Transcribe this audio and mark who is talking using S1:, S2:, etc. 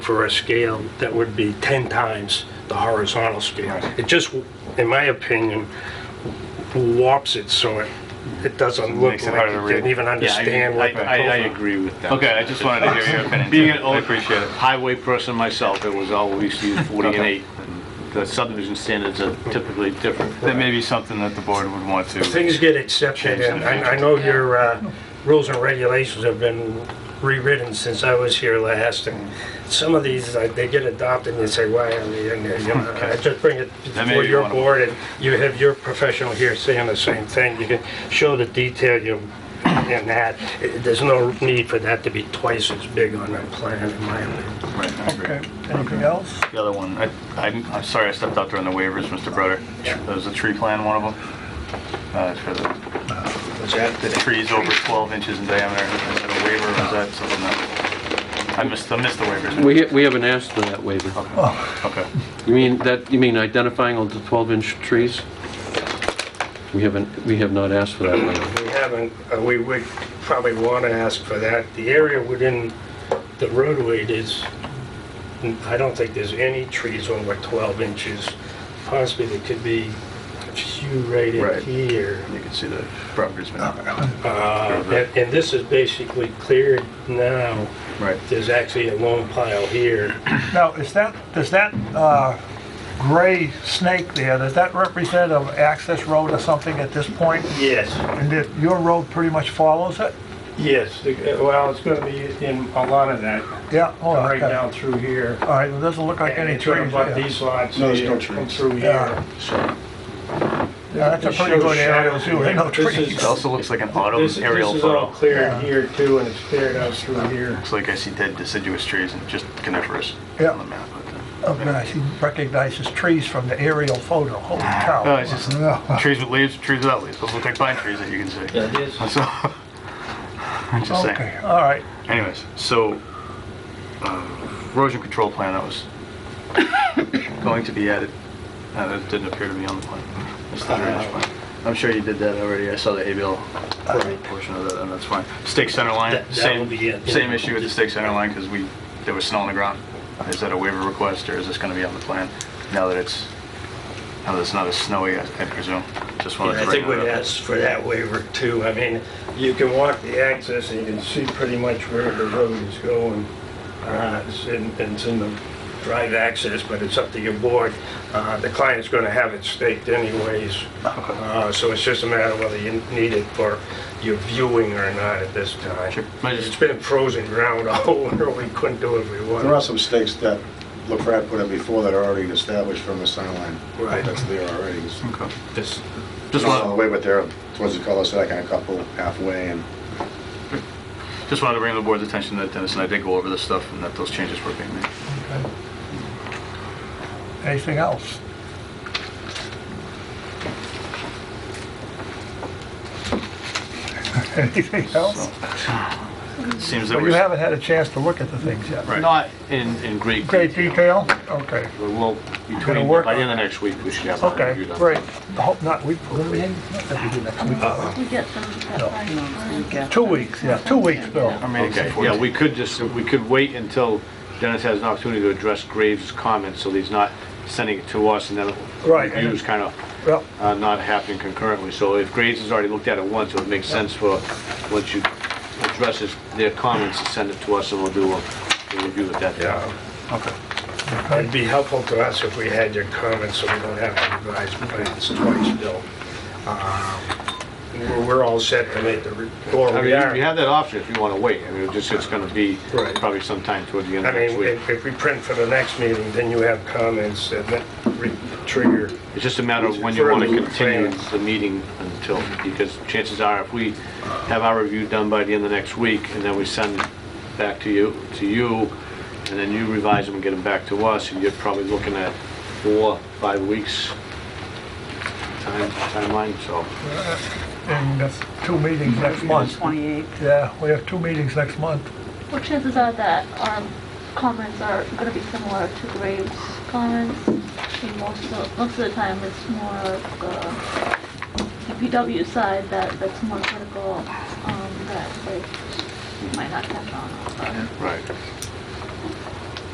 S1: for a scale that would be 10 times the horizontal scale.
S2: Right.
S1: It just, in my opinion, warps it so it, it doesn't look
S2: Makes it
S1: like
S2: harder to
S1: you didn't
S2: read.
S1: even
S3: Yeah, I-
S1: understand what the
S3: I, I, I
S1: profile.
S3: agree with that.
S2: Okay, I just wanted to hear your opinion.
S3: Being
S2: too.
S3: an old
S2: I appreciate it.
S3: highway person myself, it was always used 40 and
S2: Okay.
S3: 8. and The subdivision standards are typically different.
S2: That may be something that the board would want to.
S1: Things get accepted, and I I know your uh, rules and regulations have been rewritten since I was here last, and some of these, like, they get adopted, and you say, why are they in there? You know, I just bring it
S2: That may
S1: before
S2: be
S1: your
S2: one of them.
S1: board, and you have your professional here saying the same thing. You can show the detail you, in that. It- There's no need for that to be twice as big on that plan, in my opinion.
S2: Right, I agree.
S4: Okay, anything else?
S2: The other one, I, I'm, I'm sorry I stepped out during the waivers, Mr. Broder. There was a tree plan, one of them. Uh, for the,
S1: Was that
S2: the trees over 12 inches in diameter, is that a waiver or is that something that? I missed, I missed the waivers.
S5: We, we haven't asked for that waiver.
S2: Okay.
S5: You mean that, you mean identifying all the 12-inch trees? We haven't, we have not asked for that waiver.
S1: We haven't, uh, we would probably want to ask for that. The area within the roadway is, I don't think there's any trees over 12 inches. Possibly there could be a few right in
S2: Right.
S1: here.
S2: You can see the property's been,
S1: Uh, And and this is basically cleared now.
S2: right.
S1: There's actually a long pile here.
S4: Now, is that, does that uh, gray snake there, does that represent an access road or something at this point?
S1: Yes,
S4: And that your road pretty much follows it?
S1: yes. The- uh, Well, it's going to be in a lot of that,
S4: Yeah, oh,
S1: right
S4: okay.
S1: down through here.
S4: All right, it doesn't look like any
S1: It's gonna
S4: trees
S1: butt
S4: there.
S1: These lots
S6: No, there's no
S1: here, come
S6: trees.
S1: through here.
S4: Yeah. Yeah, that's a pretty good area too, ain't no
S1: This is-
S4: trees.
S2: It also looks like an auto
S1: This,
S2: aerial
S1: this is all
S2: photo.
S1: cleared
S4: Yeah.
S1: here too, and it's cleared out through here.
S2: Looks like I see dead deciduous trees and just coniferous
S4: Yeah.
S2: on the map. but, uh,
S4: Oh, nice, he recognizes trees from the aerial photo, holy cow.
S2: No, it's just
S4: Yeah.
S2: trees with leaves, trees without leaves. Those look like pine trees that you can see.
S3: Yeah, it is.
S2: So, I'm just
S4: Okay,
S2: saying.
S4: all right,
S2: Anyways, so uh, erosion control plan that was going to be added. Uh, that didn't appear to be on the plan. It's the drainage plan. I'm sure you did that already. I saw the ABL portion of that, and that's fine. Stake center line,
S1: Uh, That- that will
S2: same
S1: be it.
S2: same issue with the stake center line because we there was snow on the ground. Is that a waiver request or is this going to be on the plan now that it's now that it's not as snowy? I, I presume. Just wanted
S1: I
S2: to bring
S1: think we'd
S2: that up.
S1: ask for that waiver too. I mean, you can walk the access and you can see pretty much where the road is going. Uh, It's in, it's in the drive access, but it's up to your board. Uh, The client's going to have it staked anyways. Uh, So it's just a matter of whether you need it for your viewing or not at this time.
S2: Sure. Might just-
S1: It's been frozen ground all winter. We couldn't do it if we wanted.
S6: There are some stakes that LaFrat put in before that are already established from the center line.
S1: Right.
S6: That's there already. It's
S2: Okay.
S1: Just
S2: Just
S6: Not all
S2: wanted
S6: the way, but they're towards the cul-de-sac and a couple halfway and
S2: Just wanted to bring to the board's attention that Dennis and I did go over this stuff and that those changes were being made.
S4: anything else? Anything else?
S2: It Seems that
S4: Well, you
S2: we're,
S4: haven't had a chance to look at the things yet.
S2: Right.
S3: Not in, in great
S4: Great
S3: detail.
S4: detail? Okay,
S3: But We'll, between,
S4: work
S3: by the
S4: on
S3: end of next week, we should have. that
S4: okay,
S3: reviewed up.
S4: great. I Hope not, we, what do we have? Not that we do next week.
S7: We get some of
S4: No.
S7: that by-
S4: Two weeks, yeah, two weeks, Bill.
S2: our meeting's
S3: Okay,
S2: at
S3: yeah,
S2: 14.
S3: we could just, we could wait until Dennis has an opportunity to address Graves' comments, so that he's not sending it to us, and then
S4: Right.
S3: reviews kind of
S4: Well,
S3: uh, not happening concurrently. So if Graves has already looked at it once, it would make sense for, once you address his- their comments, to send it to us, and we'll do a a review at that time.
S1: Yeah. Okay. It'd be helpful to us if we had your comments, so we don't have to revise plans twice, Bill. Um, We're we're all set to make the, re- or
S3: I mean,
S1: we
S3: you
S1: are.
S3: you have that option if you want to wait. I mean, it's just, it's going to be
S1: Right.
S3: probably sometime toward the end
S1: I
S3: of next
S1: mean,
S3: week.
S1: if if we print for the next meeting, then you have comments that that re- trigger.
S3: It's just a matter of when you want to
S1: Further
S3: continue
S1: plans.
S3: the meeting until, because chances are, if we have our review done by the end of next week, and then we send it back to you, to you, and then you revise them and get them back to us, and you're probably looking at four, five weeks time timeline, so.
S4: and that's two meetings next month.
S7: 28.
S4: Yeah, we have two meetings next month.
S7: What chances are that our comments are going to be similar to Graves' comments? And Most of, most of the time, it's more of the DPW side that, that's more critical, um, that they might not catch on. but-
S3: Right.